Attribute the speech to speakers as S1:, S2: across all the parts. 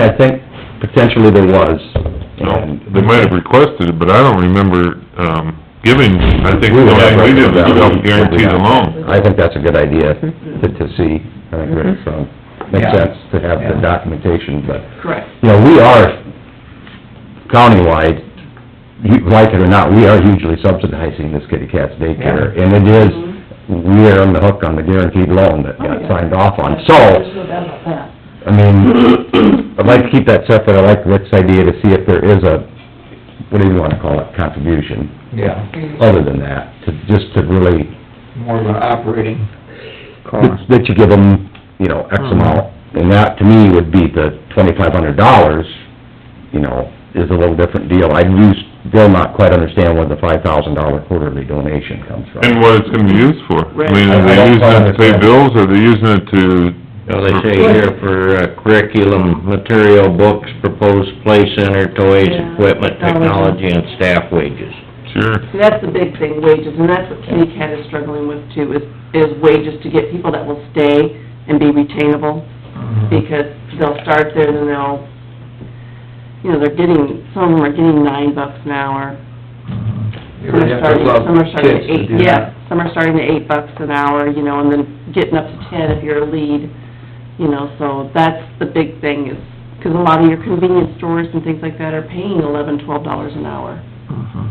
S1: I think potentially there was.
S2: No,
S1: And
S2: they might have requested it, but I don't remember, um, giving, I think the only thing we did was help guarantee the loan.
S1: I think that's a good idea to, to see, I think, Rick, so, makes
S3: Mm-hmm. Yeah.
S1: sense to have the
S3: Yeah.
S1: documentation, but,
S3: Correct.
S1: you know, we are countywide, you- like it or not, we are hugely subsidizing this kitty cat's daycare, and it is,
S3: Mm-hmm.
S1: we are on the hook on the guaranteed loan
S3: Oh,
S1: that got signed off on, so,
S3: There's no doubt about that.
S1: I mean, I'd like to keep that separate, I like Rick's idea to see if there is a, what do you wanna call it, contribution,
S4: Yeah,
S1: other than that, to, just to really,
S4: more of an operating
S3: Uh-huh.
S4: cost.
S1: that you give them, you know, X amount, and that to me would be the twenty-five hundred dollars, you know, is a little different deal. I do still not quite understand where the five thousand dollar quarterly donation comes from.
S2: And what it's gonna be used for. I mean, are
S1: Right. I don't
S2: they using it to pay
S1: understand.
S2: bills, or are they using it to?
S5: Well, they say here for uh, curriculum, material, books, proposed play center, toys,
S3: Yeah.
S5: equipment, technology, and staff wages.
S2: Sure.
S3: And that's the big thing, wages, and that's what Kitty Cat is struggling with too, is, is wages to get people that will stay and be retainable,
S4: Mhm.
S3: because they'll start there, then they'll, you know, they're getting, some of them are getting nine bucks an hour,
S4: You
S3: some
S4: would
S3: are
S4: have to
S3: starting,
S4: love
S3: some are starting
S4: kids
S3: at
S4: to
S3: eight,
S4: do
S3: yeah,
S4: that.
S3: some are starting at eight bucks an hour, you know, and then getting up to ten if you're a lead, you know, so that's the big thing is, because a lot of your convenience stores and things like that are paying eleven, twelve dollars an hour.
S4: Mhm.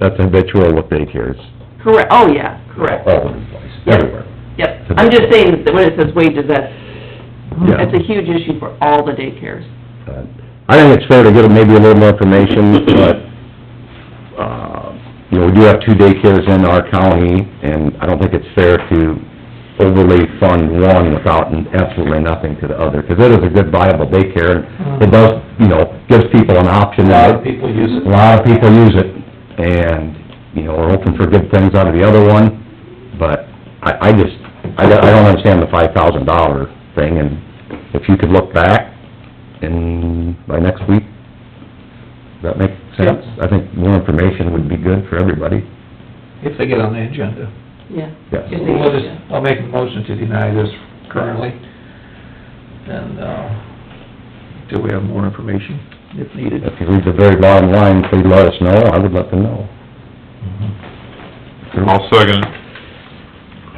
S1: That's habitual with daycares,
S3: Correct, oh, yeah, correct,
S1: all over the place,
S3: Yeah.
S1: everywhere.
S3: yep. I'm just saying that when it says wages, that's, that's a huge issue for all the daycares.
S1: Uh, I think it's fair to get maybe a little more information, but, uh, you know, we do have two daycares in our county, and I don't think it's fair to overly fund one without absolutely nothing to the other, because it is a good viable daycare, and it does, you know, gives people an option.
S4: A lot of people use it.
S1: A lot of people use it, and, you know, we're hoping for good things out of the other one, but I, I just, I don't, I don't understand the five thousand dollar thing, and if you could look back, and by next week, does that make sense? I think more information would be good for everybody.
S4: If they get on the agenda.
S3: Yeah.
S1: Yes.
S3: If they-
S4: We'll just, I'll make a motion to deny this currently. And, uh, till we have more information if needed.
S1: If you read the very bottom line, please let us know, I would let them know.
S2: I'll second it.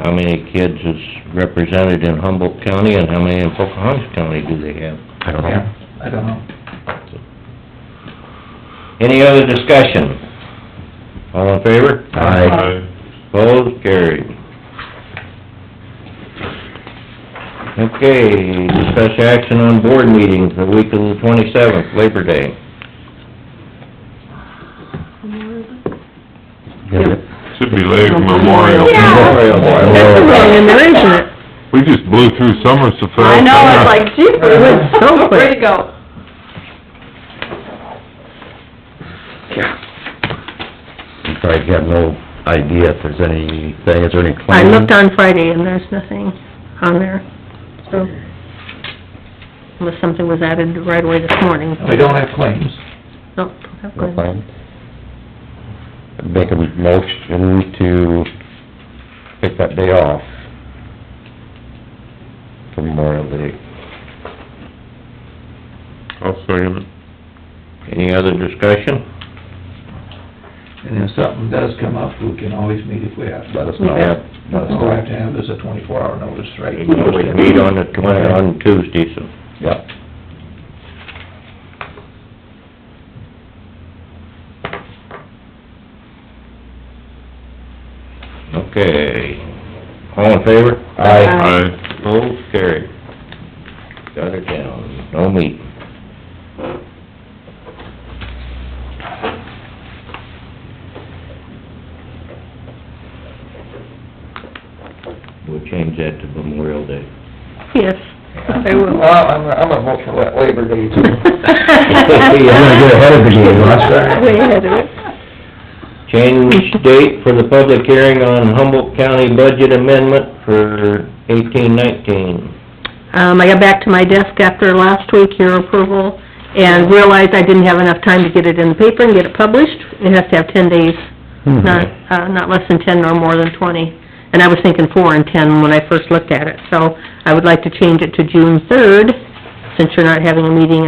S5: How many kids is represented in Humboldt County, and how many in Pocahontas County do they have?
S1: I don't know.
S4: Yeah, I don't know.
S5: Any other discussion? All in favor?
S1: I,
S5: Opposed, carried. Okay, discuss action on board meetings the week of the twenty-seventh, Labor Day.
S2: Should be late
S1: Memorial
S2: Memorial.
S1: Day.
S6: That's a long in there, isn't it?
S2: We just blew through summer so fast.
S3: I know, it's like, geez, we went so quick. Way to go.
S1: I'm sorry, I have no idea if there's anything, is there any
S6: I
S1: claim?
S6: looked on Friday and there's nothing on there, so, unless something was added right away this morning. Oh,
S4: We don't have claims.
S6: No, not
S1: No
S6: good.
S1: claim? Make a motion to take that day off for Memorial Day.
S2: I'll second it.
S5: Any other discussion?
S4: And if something does come up, we can always meet if we have to.
S1: Let us know.
S5: Yeah.
S4: But all we have to have is a twenty-four hour notice, right?
S5: We can always meet on the twen, on Tuesday, so.
S1: Yep.
S5: Okay. All in favor?
S1: Aye.
S2: Aye.
S5: Opposed, carried. Got it down, no meeting. We'll change that to Memorial Day.
S6: Yes, I will.
S4: Well, I'm, I'm gonna vote for that Labor Day too.
S1: You're gonna get ahead of the game, that's right.
S6: Way ahead of it.
S5: Change date for the public hearing on Humboldt County budget amendment for eighteen nineteen.
S6: Um, I got back to my desk after last week, your approval, and realized I didn't have enough time to get it in the paper and get it published. It has to have ten days,
S3: Hmm.
S6: not, uh, not less than ten nor more than twenty. And I was thinking four and ten when I first looked at it, so I would like to change it to June third, since you're not having a meeting